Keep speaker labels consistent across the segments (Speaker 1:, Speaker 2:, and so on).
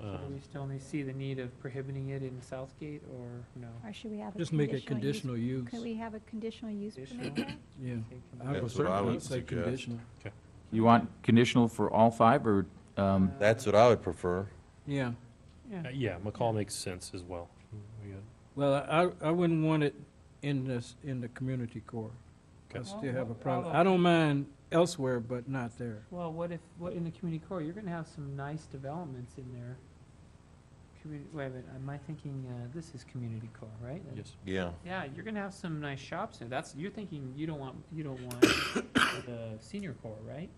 Speaker 1: Uh,
Speaker 2: Um,
Speaker 3: we still only see the need of prohibiting it in Southgate, or no?
Speaker 4: Or should we have a?
Speaker 1: Just make it
Speaker 4: use-
Speaker 1: conditional use,
Speaker 4: Could we have a conditional use
Speaker 3: Conditional?
Speaker 4: permit now?
Speaker 1: yeah.
Speaker 3: Take them-
Speaker 1: I would
Speaker 5: That's what I
Speaker 1: certainly
Speaker 5: would
Speaker 1: say
Speaker 5: suggest.
Speaker 1: conditional.
Speaker 6: You want conditional for all five, or, um,
Speaker 5: That's what I would prefer.
Speaker 1: Yeah,
Speaker 3: Yeah.
Speaker 2: Uh, Yeah, McCall makes sense as well. We got-
Speaker 1: well, I, I wouldn't want it in this, in the community core. I
Speaker 2: Okay.
Speaker 1: still have a problem, I don't mind elsewhere, but not there.
Speaker 3: Well, what if, what, in the community core, you're gonna have some nice developments in there. Community, wait a minute, am I thinking, uh, this is community core, right? That-
Speaker 2: Yes.
Speaker 5: Yeah.
Speaker 3: Yeah, you're gonna have some nice shops in, that's, you're thinking, you don't want, you don't want the senior core, right?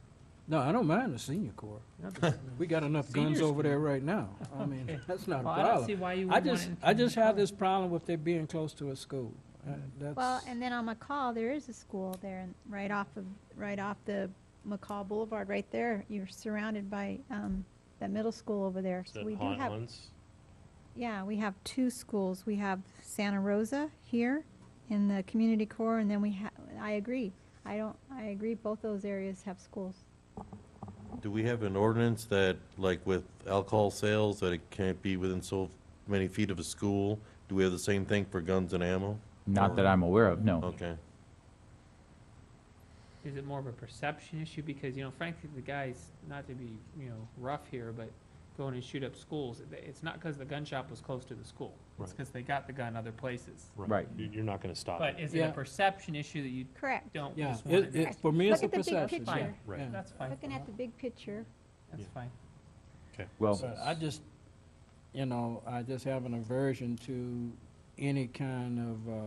Speaker 1: No, I don't mind the senior core.
Speaker 3: Not the-
Speaker 1: We got enough guns
Speaker 3: Seniors
Speaker 1: over
Speaker 3: can-
Speaker 1: there right now. I mean,
Speaker 3: Okay.
Speaker 1: that's not a
Speaker 3: Well, I don't see
Speaker 1: problem.
Speaker 3: why you
Speaker 1: I
Speaker 3: would want it
Speaker 1: just,
Speaker 3: in
Speaker 1: I just
Speaker 3: community
Speaker 1: have
Speaker 3: core.
Speaker 1: this problem with it being close to a school. Uh, That's.
Speaker 4: Well, and then on McCall, there is a school there, and right off of, right off the McCall Boulevard, right there, you're surrounded by, um, that middle school over there,
Speaker 2: Is
Speaker 4: so
Speaker 2: that
Speaker 4: we do
Speaker 2: Haunt
Speaker 4: have,
Speaker 2: Ones?
Speaker 4: yeah, we have two schools, we have Santa Rosa here in the community core, and then we ha, I agree, I don't, I agree, both those areas have schools.
Speaker 5: Do we have an ordinance that, like with alcohol sales, that it can't be within so many feet of a school? Do we have the same thing for guns and ammo?
Speaker 6: not that I'm aware of,
Speaker 2: Oh,
Speaker 6: no.
Speaker 5: Okay.
Speaker 3: Is it more of a perception issue? Because, you know, frankly, the guys, not to be, you know, rough here, but going and shoot up schools, it- it's not because the gun shop was close to the school. It's
Speaker 2: Right.
Speaker 3: because they got the gun other places.
Speaker 6: Right.
Speaker 2: You- You're not going to stop
Speaker 3: But
Speaker 2: it.
Speaker 3: is it a
Speaker 1: Yeah.
Speaker 3: perception issue that you
Speaker 4: Correct.
Speaker 3: don't
Speaker 1: Yeah,
Speaker 3: just want
Speaker 1: it,
Speaker 3: to?
Speaker 1: it, for me, it's a
Speaker 4: Look at the big
Speaker 1: perception, yeah,
Speaker 4: picture.
Speaker 2: Right.
Speaker 1: yeah.
Speaker 3: That's fine.
Speaker 4: Looking at the big picture,
Speaker 3: That's
Speaker 2: Yeah.
Speaker 3: fine.
Speaker 6: Well,
Speaker 1: But I just, you know, I just have an aversion to any kind of uh,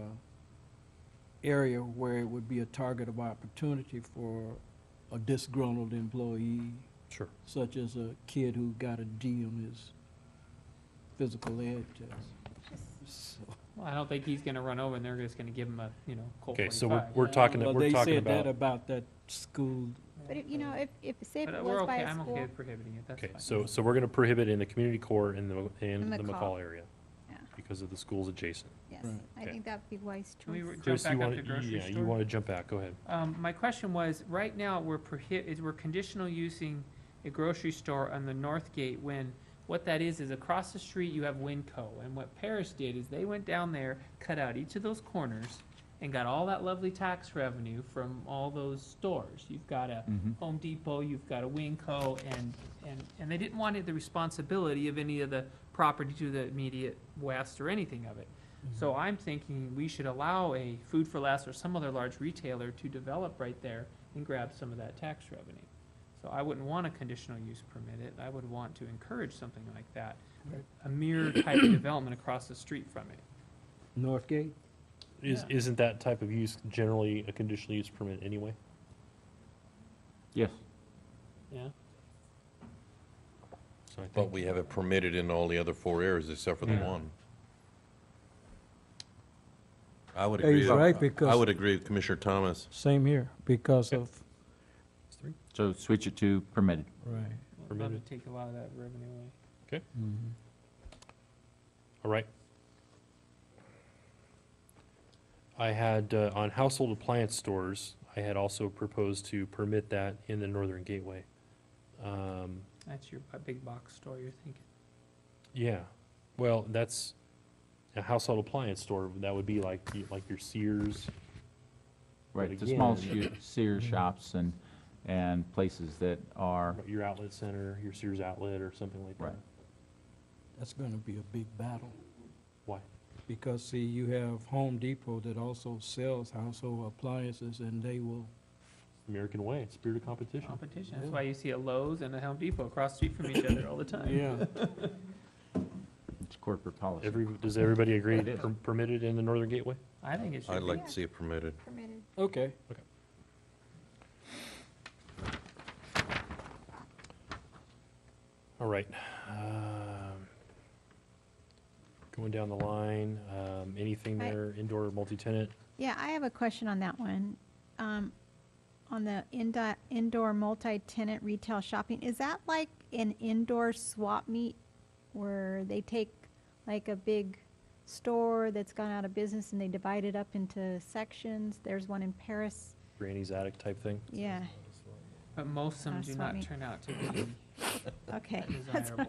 Speaker 1: area where it would be a target of opportunity for a disgruntled employee,
Speaker 2: Sure.
Speaker 1: such as a kid who got a D on his physical ed test. So-
Speaker 3: Well, I don't think he's gonna run over and they're just gonna give him a, you know, Colt
Speaker 2: Okay, so we're,
Speaker 3: forty-five.
Speaker 2: we're talking,
Speaker 1: Well,
Speaker 2: we're
Speaker 1: uh, they
Speaker 2: talking
Speaker 1: said that
Speaker 2: about,
Speaker 1: about that school,
Speaker 4: but if, you know, if, if, say if
Speaker 3: But
Speaker 4: it
Speaker 3: uh, we're
Speaker 4: was by
Speaker 3: okay,
Speaker 4: a
Speaker 3: I'm okay
Speaker 4: school,
Speaker 3: with prohibiting it, that's
Speaker 2: okay,
Speaker 3: fine.
Speaker 2: so, so we're going to prohibit in the community core and the,
Speaker 4: In
Speaker 2: and the
Speaker 4: McCall.
Speaker 2: McCall area.
Speaker 4: Yeah.
Speaker 2: Because of the schools adjacent.
Speaker 4: yes,
Speaker 1: Right.
Speaker 4: I
Speaker 2: Okay.
Speaker 4: think that'd be wise
Speaker 3: Can we re-
Speaker 4: choice.
Speaker 3: Jump
Speaker 2: Chris,
Speaker 3: back
Speaker 2: you
Speaker 3: up
Speaker 2: want
Speaker 3: to
Speaker 2: to,
Speaker 3: grocery
Speaker 2: yeah,
Speaker 3: store?
Speaker 2: you want to jump back, go ahead.
Speaker 3: Um, my question was, right now, we're prohi- is we're conditional using a grocery store on the north gate when what that is, is across the street you have Winco. And what Paris did is they went down there, cut out each of those corners and got all that lovely tax revenue from all those stores. You've got a
Speaker 6: Mhm.
Speaker 3: Home Depot, you've got a Winco and, and, and they didn't want it, the responsibility of any of the property to the immediate west or anything of it. So I'm thinking we should allow a Food for Less or some other large retailer to develop right there and grab some of that tax revenue. So I wouldn't want a conditional use permit. It, I would want to encourage something like that, a mere type of development across the street from it.
Speaker 1: Northgate.
Speaker 2: Is,
Speaker 3: Yeah.
Speaker 2: isn't that type of use generally a conditional use permit anyway?
Speaker 6: yes,
Speaker 3: Yeah.
Speaker 2: So I
Speaker 5: But
Speaker 2: think,
Speaker 5: we have it permitted in all the other four areas except
Speaker 1: Hmm.
Speaker 5: for the
Speaker 3: Yeah.
Speaker 5: one. I would
Speaker 1: Yeah,
Speaker 5: agree.
Speaker 1: he's
Speaker 5: with-
Speaker 1: right,
Speaker 5: I
Speaker 1: because-
Speaker 5: would agree with Commissioner Thomas.
Speaker 1: Same here, because of,
Speaker 6: so switch it to permitted.
Speaker 1: right.
Speaker 3: I'd love to
Speaker 2: Permitted.
Speaker 3: take a lot of that revenue away.
Speaker 2: Mm-hmm. all right. I had, uh, on household appliance stores, I had also proposed to permit that in the northern gateway. Um,
Speaker 3: That's your bu- big box store you're thinking.
Speaker 2: Yeah, well, that's a household appliance store, that would be like, y- like your Sears,
Speaker 6: Right,
Speaker 2: But
Speaker 6: the small
Speaker 2: again- mm-hmm.
Speaker 6: Sears- Sears shops and, and places that are,
Speaker 2: your outlet center, your Sears outlet or something like
Speaker 6: Right.
Speaker 2: that.
Speaker 1: That's gonna be a big battle.
Speaker 2: Why?
Speaker 1: Because, see, you have Home Depot that also sells household appliances, and they will,
Speaker 2: American way, it's spirit of competition.
Speaker 3: Competition, that's why you see a Lowe's and a Home Depot across the street from each other all the time.
Speaker 1: yeah.
Speaker 6: it's corporate policy.
Speaker 2: Every, does everybody agree
Speaker 6: It is.
Speaker 2: per- permitted in the northern gateway?
Speaker 3: I think it should be.
Speaker 5: I'd like to see it permitted.
Speaker 4: Permitted.
Speaker 1: Okay.
Speaker 2: All right. um, Going down the line, um, anything
Speaker 4: I-
Speaker 2: there, indoor, multi-tenant?
Speaker 4: Yeah, I have a question on that one. Um, on the indo- indoor multi-tenant retail shopping, is that like an indoor swap meet where they take like a big store that's gone out of business and they divide it up into sections? There's one in Paris.
Speaker 2: Granny's attic type thing?
Speaker 4: Yeah,
Speaker 3: But most of them
Speaker 4: Uh,
Speaker 3: do
Speaker 4: swap
Speaker 3: not
Speaker 4: meet.
Speaker 3: turn out to be
Speaker 4: okay.
Speaker 3: desirable.